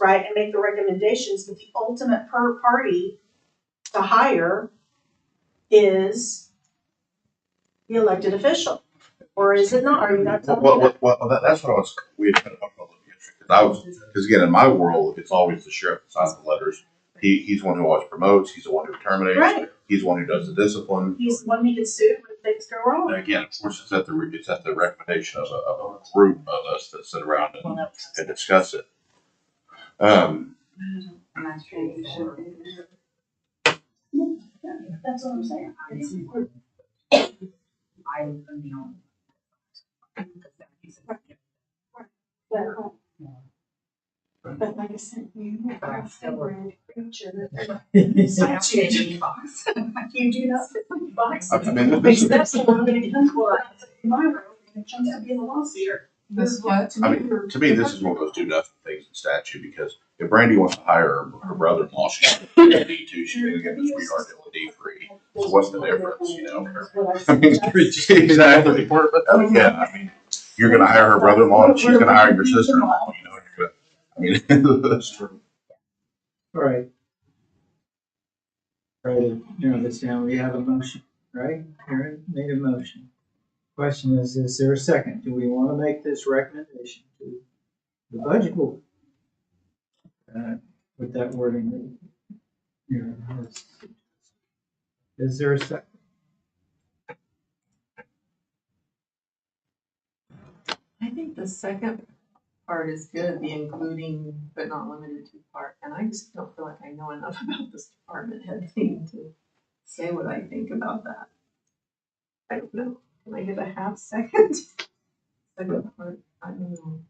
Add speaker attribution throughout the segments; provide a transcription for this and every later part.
Speaker 1: right, and make the recommendations, but the ultimate per party to hire is the elected official, or is it not, are you not
Speaker 2: Well,
Speaker 1: telling me
Speaker 2: well,
Speaker 1: that?
Speaker 2: well, well, that, that's what I was, we had kind of talked about the district, 'cause I was, because again, in my world, it's always the sheriff that signs the letters. He, he's the one who always promotes, he's the one who terminates,
Speaker 1: Right,
Speaker 2: he's the one who does the discipline.
Speaker 1: he's the one who gets sued when things go
Speaker 2: And
Speaker 1: wrong.
Speaker 2: again, of course, it's at the, re- it's at the recommendation of a, of a group of us that sit around and, and discuss it. Um,
Speaker 1: That's what I'm saying.
Speaker 3: I am the only.
Speaker 1: uh, But like I said, you are a favorite creature.
Speaker 3: I don't fit in the box.
Speaker 1: You do not fit in the box.
Speaker 2: I mean, this
Speaker 1: Because
Speaker 2: is,
Speaker 1: that's the one I'm gonna get done for. In my room, and it turns out to be the lawsuit.
Speaker 3: This what?
Speaker 2: I mean, to me, this is one of those do nothing things in statute, because if Brandy wants to hire her- her brother-in-law, she's gonna need to, she's gonna get the sweetheart deal with D free. So what's the difference, you know? I mean, exactly. I mean, yeah, I mean, you're gonna hire her brother-in-law, and she's gonna hire your sister-in-law, you know? you're gonna- I mean, that's true.
Speaker 4: Alright. Try to narrow this down, we have a motion, right? Aaron made a motion. Question is, is there a second? Do we wanna make this recommendation to the budget board? Uh, with that wording. that Aaron has. Is there a second?
Speaker 5: I think the second part is good, the including but not limited to part, and I just don't feel like I know enough about this department head thing to say what I think about that. I don't know, can I get a half second? Second part, I don't know.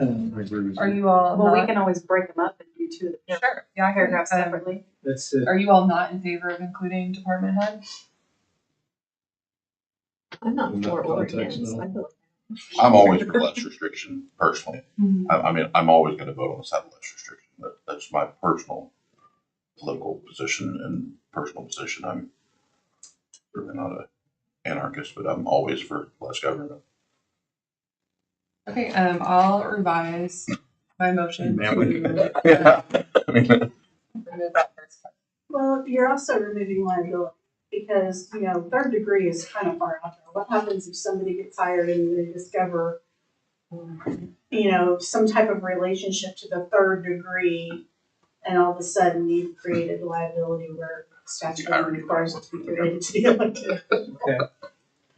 Speaker 4: Um,
Speaker 6: Are you all
Speaker 7: Well, we
Speaker 6: not-
Speaker 7: can always break them up and do two of the
Speaker 6: Sure. Yeah, I can,
Speaker 7: paragraphs
Speaker 6: um,
Speaker 7: separately.
Speaker 4: That's, uh,
Speaker 6: Are you all not in favor of including department head?
Speaker 5: I'm not
Speaker 8: In that
Speaker 5: for or
Speaker 8: context,
Speaker 5: against,
Speaker 8: no.
Speaker 5: I feel
Speaker 2: I'm always for less restriction personally.
Speaker 6: Mhm.
Speaker 2: I, I mean, I'm always gonna vote on the side of less restriction. That, that's my personal political position and personal position. I'm certainly not a anarchist, but I'm always for less government.
Speaker 6: Okay, um, I'll revise my motion to
Speaker 2: Man, we-
Speaker 6: remove
Speaker 2: Yeah. I mean,
Speaker 6: that first part.
Speaker 1: Well, you're also removing liability, because, you know, third degree is kind of far out there. What happens if somebody gets hired and they discover, you know, some type of relationship to the third degree, and all of a sudden you've created liability where statute
Speaker 2: irony.
Speaker 1: requires it to be related to the elected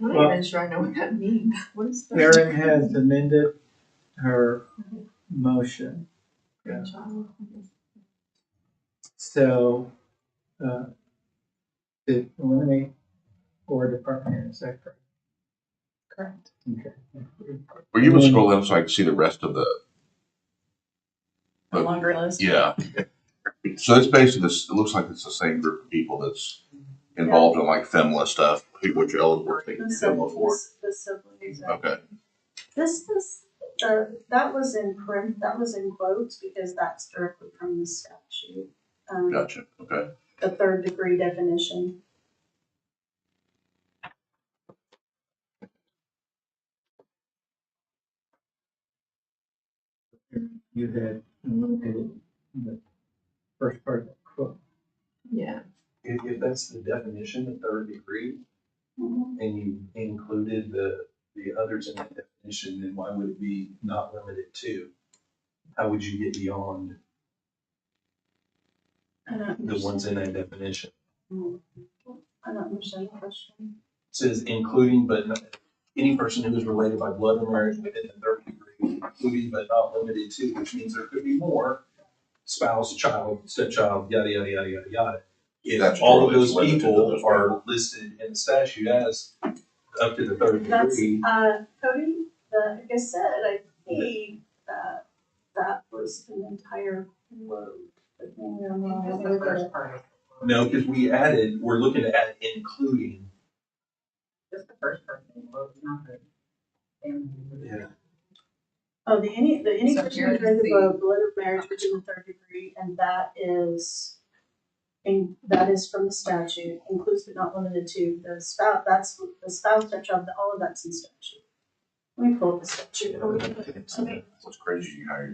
Speaker 5: I'm
Speaker 4: Well-
Speaker 5: not even sure I know what that means, what is that?
Speaker 4: Erin has amended her motion,
Speaker 5: Grandchild.
Speaker 4: so, uh, to eliminate or department, head, is that correct?
Speaker 6: Correct.
Speaker 4: Okay.
Speaker 2: Were you able to scroll down so I can see the rest of the,
Speaker 7: A longer list.
Speaker 2: yeah. So it's basically this, it looks like it's the same group of people that's involved in like FEMLA stuff, who- which you're eligible to take
Speaker 1: The
Speaker 2: FEMLA for.
Speaker 1: siblings, the siblings, uh,
Speaker 2: Okay,
Speaker 1: This is, uh, that was in print, that was in quotes because that's directly from the statute. Um,
Speaker 2: gotcha, okay.
Speaker 1: the third degree definition.
Speaker 4: you had eliminated the first part of the quote.
Speaker 5: Yeah,
Speaker 8: If, if that's the definition, the third degree, and you included the, the others in that definition, then why would it be not limited to? How would you get beyond
Speaker 1: I don't
Speaker 8: the
Speaker 1: understand.
Speaker 8: ones in that definition?
Speaker 1: I don't understand the question.
Speaker 8: It Says including but not, any person who is related by blood or marriage within the third degree, including but not limited to, which means there could be more spouse, child, stepchild, yada, yada, yada, yada, yada. If
Speaker 2: That's
Speaker 8: all of
Speaker 2: true, it's
Speaker 8: those
Speaker 2: limited to
Speaker 8: people
Speaker 2: those
Speaker 8: are listed in the statute as up to the third
Speaker 1: That's,
Speaker 8: degree.
Speaker 1: uh, Cody, the, like I said, I think that that was an entire quote. but maybe I'm wrong.
Speaker 5: that's the first part,
Speaker 8: No, because we added, we're looking to add including.
Speaker 5: just the first part, well, not the. family.
Speaker 1: Oh, the any, the any
Speaker 6: So
Speaker 1: person
Speaker 6: here
Speaker 1: who's
Speaker 6: is
Speaker 1: related
Speaker 6: the-
Speaker 1: by blood of marriage within the third degree, and that is, in that is from the statute, includes but not limited to the spouse, that's the spouse, stepchild, all of that's in statute.
Speaker 9: Let me pull up the statute.
Speaker 1: What's crazy, you hire